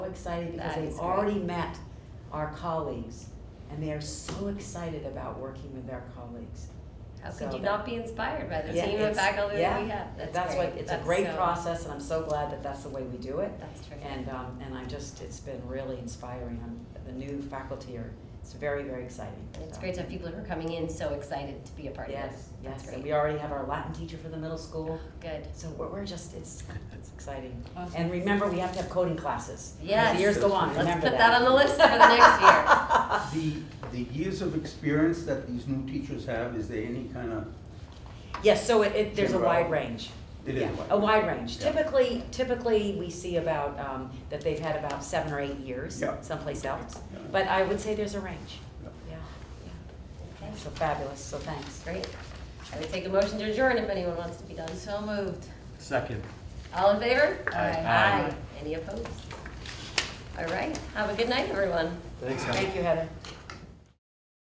excited because That they've is great. already met our colleagues and they are so excited about working with their colleagues. How So could you that- not be inspired by the Yeah, team it's- of faculty that we yeah, have? That's That's why, great. it's a That's great so- process and I'm so glad that that's the way we do it. That's terrific. And, um, and I'm just, it's been really inspiring. I'm, the new faculty are, it's very, very exciting. And It's So, great to have people who are coming in so excited to be a part of Yes, this. yes, That's and we great. already have our Latin teacher for the middle school. Good. So we're, we're just, it's, it's exciting. Awesome. And remember, we have to have coding classes. As Yes. the years go on, Let's remember put that on the list for the next year. The, the years of experience that these new teachers have, is there any kind of, Yes, so it, it, there's a General. wide range. it is Yeah, like? A wide range. Yeah. Typically, typically, we see about, um, that they've had about seven or eight years Yeah. someplace else. Yeah. But I would say there's a range. Yeah. Yeah, yeah. Okay. So fabulous, so thanks. Great. I would take a motion to adjourn if anyone wants to be done. So moved. Second. All in favor? Aye. Aye. Any opposed? All right. Have a good night, everyone. Thanks, Heather. Thank you, Heather.